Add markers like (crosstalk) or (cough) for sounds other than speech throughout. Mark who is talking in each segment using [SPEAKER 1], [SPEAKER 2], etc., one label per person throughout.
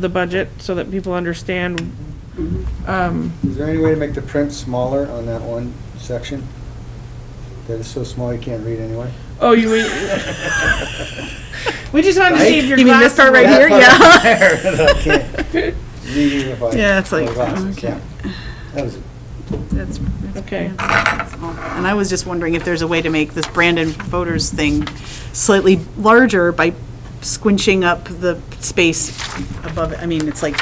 [SPEAKER 1] the budget so that people understand.
[SPEAKER 2] Is there any way to make the print smaller on that one section? That is so small you can't read anyway?
[SPEAKER 1] Oh, you, we, we just wanted to see if your
[SPEAKER 3] You mean this
[SPEAKER 1] glasses
[SPEAKER 3] part right
[SPEAKER 1] were-
[SPEAKER 3] here?
[SPEAKER 2] (laughs) That part there
[SPEAKER 3] Yeah.
[SPEAKER 2] that I can't read even if I-
[SPEAKER 3] Yeah, it's
[SPEAKER 2] my
[SPEAKER 3] like,
[SPEAKER 2] glasses,
[SPEAKER 3] okay.
[SPEAKER 2] yeah. That was,
[SPEAKER 3] That's- that's-
[SPEAKER 1] Okay.
[SPEAKER 3] that's small. And I was just wondering if there's a way to make this Brandon voters thing slightly larger by squinching up the space above, it. I mean, it's like,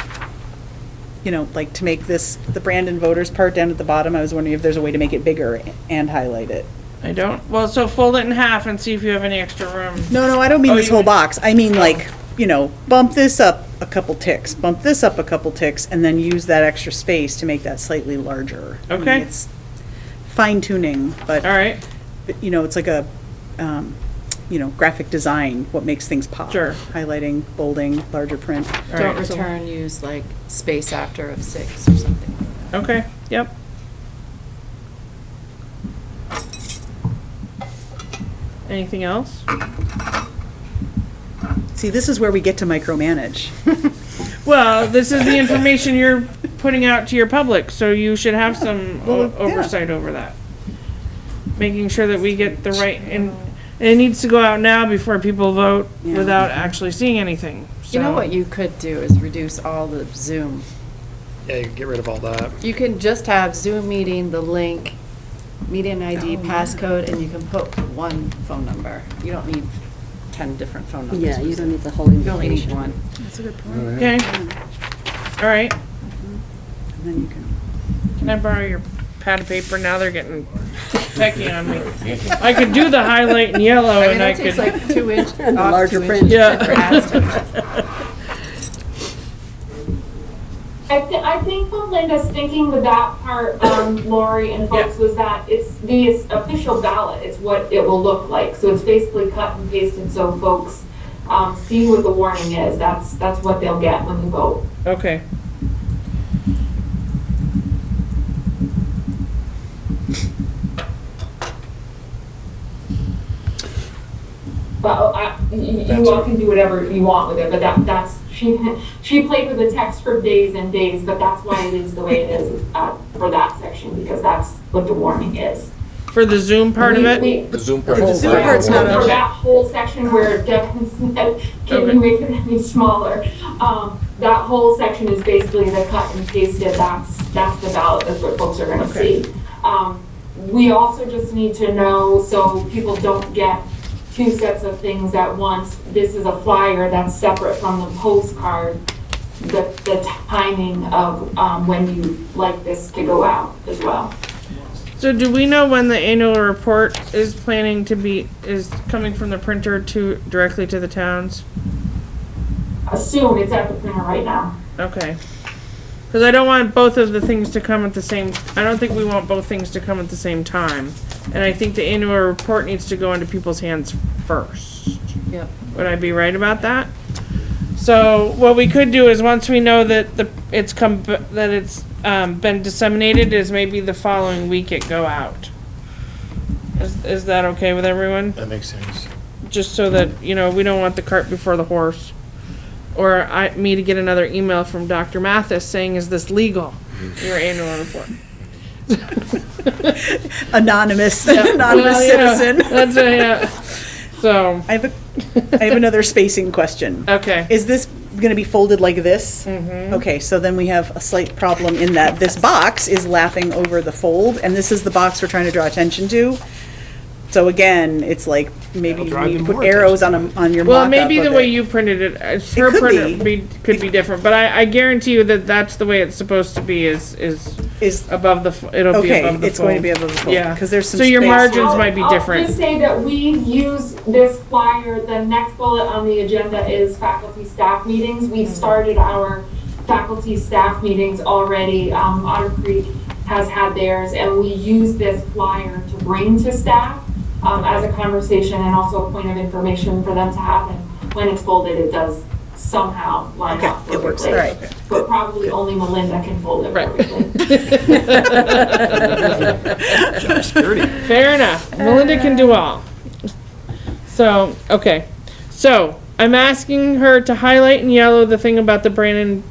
[SPEAKER 3] you know, like to make this, the Brandon voters part down at the bottom, I was wondering if there's a way to make it bigger and highlight it.
[SPEAKER 1] I don't, well, so fold it in half and see if you have any extra room.
[SPEAKER 3] No, no, I don't mean
[SPEAKER 1] Oh,
[SPEAKER 3] this
[SPEAKER 1] you
[SPEAKER 3] whole
[SPEAKER 1] mean- Oh.
[SPEAKER 3] box. I mean like, you know, bump this up a couple ticks, bump this up a couple ticks, and then use that extra space to make that slightly larger. I mean,
[SPEAKER 1] Okay.
[SPEAKER 3] It's fine tuning,
[SPEAKER 1] All
[SPEAKER 3] but,
[SPEAKER 1] right,
[SPEAKER 3] you know, it's like a, um, you know, graphic design, what makes things pop.
[SPEAKER 1] Sure.
[SPEAKER 3] Highlighting, bolding, larger print.
[SPEAKER 1] all
[SPEAKER 4] Don't
[SPEAKER 1] right, so-
[SPEAKER 4] return, use like space after of six or something like that.
[SPEAKER 1] Okay, yep. Anything else?
[SPEAKER 3] See, this is where we get to micromanage. (laughs)
[SPEAKER 1] Well, this is the information you're putting out to your public, so you should have some o-
[SPEAKER 3] well, yeah.
[SPEAKER 1] oversight over that. Making sure that we get the right, and it needs to go out now before people vote
[SPEAKER 3] Yeah.
[SPEAKER 1] without actually seeing anything,
[SPEAKER 4] You know
[SPEAKER 1] so-
[SPEAKER 4] what you could do is reduce all the Zoom.
[SPEAKER 5] Yeah, you can get rid of all that.
[SPEAKER 4] You can just have Zoom meeting, the link, meeting ID, passcode, and you can put one phone number. You don't need 10 different phone numbers.
[SPEAKER 6] Yeah,
[SPEAKER 4] for
[SPEAKER 6] you
[SPEAKER 4] Zoom.
[SPEAKER 6] don't need the whole
[SPEAKER 4] You only need
[SPEAKER 6] information.
[SPEAKER 4] one.
[SPEAKER 1] Okay,
[SPEAKER 4] Mm-hmm.
[SPEAKER 1] all right,
[SPEAKER 3] And then you can,
[SPEAKER 1] can I borrow your pad of paper? Now they're getting techie on me. I could do the highlight in yellow
[SPEAKER 4] I mean,
[SPEAKER 1] and I
[SPEAKER 4] that takes
[SPEAKER 1] could,
[SPEAKER 4] like
[SPEAKER 6] (laughs)
[SPEAKER 4] two inch, off two
[SPEAKER 6] the larger print.
[SPEAKER 4] inches (laughs)
[SPEAKER 1] Yeah.
[SPEAKER 4] for
[SPEAKER 6] (laughs)
[SPEAKER 4] ads to-
[SPEAKER 7] I, th- I think what Linda's thinking with that part, um, Lori and folks, was that it's the official ballot is what it will look like. So it's basically cut and pasted so folks um, see what the warning is. That's that's what they'll get when you vote.
[SPEAKER 1] okay.
[SPEAKER 7] But oh, I, y- y- you all can do whatever you want with it. But that that's she she played with the text for days and days. But that's why it is the way it is uh, for that section because that's what the warning is.
[SPEAKER 1] For the Zoom part of
[SPEAKER 7] We-
[SPEAKER 1] it?
[SPEAKER 7] we-
[SPEAKER 8] The Zoom part.
[SPEAKER 3] The Zoom part's not
[SPEAKER 7] For
[SPEAKER 3] on.
[SPEAKER 7] that whole section where Devin said, can you make it any smaller? Um, that whole section is basically the cut and pasted, that's, that's the ballot, that's what folks are gonna see. Um, we also just need to know, so people don't get two sets of things at once. This is a flyer that's separate from the postcard, the, the timing of, um, when you like this to go out as well.
[SPEAKER 1] So do we know when the annual report is planning to be, is coming from the printer to, directly to the towns?
[SPEAKER 7] Assume it's at the printer right now.
[SPEAKER 1] Okay. Cause I don't want both of the things to come at the same, I don't think we want both things to come at the same time. And I think the annual report needs to go into people's hands first.
[SPEAKER 4] Yep.
[SPEAKER 1] Would I be right about that? So what we could do is, once we know that the, it's come, that it's, um, been disseminated, is maybe the following week it go out. Is, is that okay with everyone?
[SPEAKER 5] That makes sense.
[SPEAKER 1] just so that, you know, we don't want the cart before the horse. Or I, me to get another email from Dr. Mathis saying, is this legal? Your annual
[SPEAKER 3] (laughs)
[SPEAKER 1] report.
[SPEAKER 3] anonymous, (laughs) anonymous
[SPEAKER 1] Well, you know,
[SPEAKER 3] citizen.
[SPEAKER 1] (laughs) That's, a- yeah. So,
[SPEAKER 3] I have a, I have another spacing question.
[SPEAKER 1] okay.
[SPEAKER 3] Is this going to be folded like this? Mm-hmm. Okay, so then we have a slight problem in that this box is lapping over the fold, and this is the box we're trying to draw attention to. So again, it's like, maybe
[SPEAKER 5] That'll drive
[SPEAKER 3] you
[SPEAKER 5] them
[SPEAKER 3] put
[SPEAKER 5] more
[SPEAKER 3] arrows on, a- on your
[SPEAKER 1] Well,
[SPEAKER 3] mock-up
[SPEAKER 1] maybe the
[SPEAKER 3] of
[SPEAKER 1] way
[SPEAKER 3] it.
[SPEAKER 1] you printed it, uh, her
[SPEAKER 3] could
[SPEAKER 1] printer
[SPEAKER 3] be.
[SPEAKER 1] be, could be different, but I, I guarantee you that that's the way it's supposed to be is, is
[SPEAKER 3] Is,
[SPEAKER 1] above the, f- it'll be
[SPEAKER 3] okay,
[SPEAKER 1] above the fold.
[SPEAKER 3] it's going to be above the fold,
[SPEAKER 1] Yeah.
[SPEAKER 3] because there's some
[SPEAKER 1] So
[SPEAKER 3] space.
[SPEAKER 1] your margin- Margins
[SPEAKER 7] I'll-
[SPEAKER 1] might be different.
[SPEAKER 7] I'll just say that we use this flyer, the next bullet on the agenda is faculty staff meetings. We've started our faculty staff meetings already. Um, Otter Creek has had theirs, and we use this flyer to bring to staff um, as a conversation and also a point of information for them to have. And when it's folded, it does somehow line
[SPEAKER 3] Okay,
[SPEAKER 7] up
[SPEAKER 3] it works,
[SPEAKER 7] perfectly.
[SPEAKER 3] all right.
[SPEAKER 7] But probably only Melinda can fold it
[SPEAKER 1] Right.
[SPEAKER 7] perfectly.
[SPEAKER 1] Fair enough. Melinda can do all. So, okay. So, I'm asking her to highlight in yellow the thing about the Brandon